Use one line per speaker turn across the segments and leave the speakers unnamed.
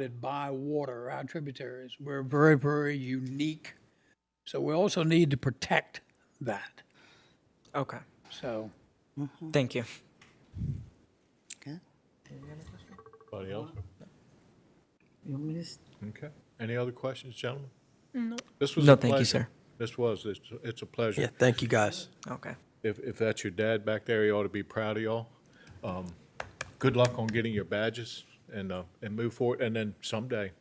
surrounded by water, our tributaries. We're very, very unique. So we also need to protect that.
Okay,
So
thank you.
Anybody else?
You want me to s-
Okay. Any other questions, gentlemen? No. This was
No,
a
thank you,
pleasure.
sir.
This was, it's, it's a pleasure.
Yeah, thank you, guys.
Okay.
If, if that's your dad back there, he ought to be proud of y'all. Um, Good luck on getting your badges and, uh, and move forward, and then someday.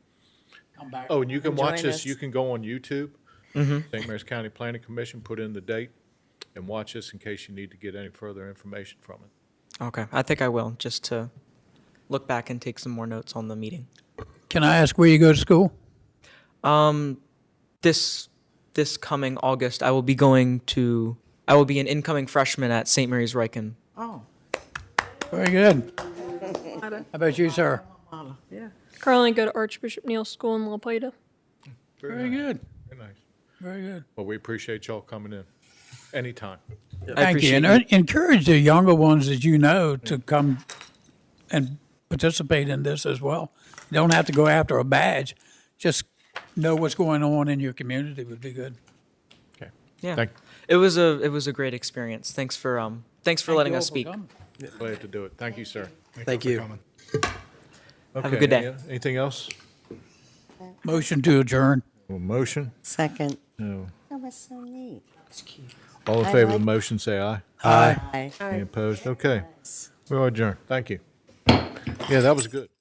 come back.
Oh, and you can watch this,
us.
you can go on YouTube,
Mm-hmm.
St. Mary's County Planning Commission, put in the date, and watch this in case you need to get any further information from it.
Okay, I think I will, just to look back and take some more notes on the meeting.
Can I ask where you go to school?
This, this coming August, I will be going to, I will be an incoming freshman at St. Mary's Riken.
Oh,
Very good. How about you, sir?
Paula, yeah.
Currently go to Archbishop Neal School in La Plata.
Very good,
Very nice.
very good.
Well, we appreciate y'all coming in, anytime.
I
Thank you.
appreciate
And en- encourage the younger ones that you know to come and participate in this as well. You don't have to go after a badge. Just know what's going on in your community would be good.
Okay.
Yeah,
Thank-
it was a, it was a great experience. Thanks for, um, thanks for letting
you
us
all
speak.
coming.
Glad to do it. Thank you, sir.
Thank you.
Have
a good day.
Anything else?
Motion to adjourn.
Well, motion?
Second.
No.
That was so neat.
All in
I
favor of the
like-
motion, say aye.
Hi.
Any opposed? Okay. We are adjourned. Thank you. Yeah, that was good.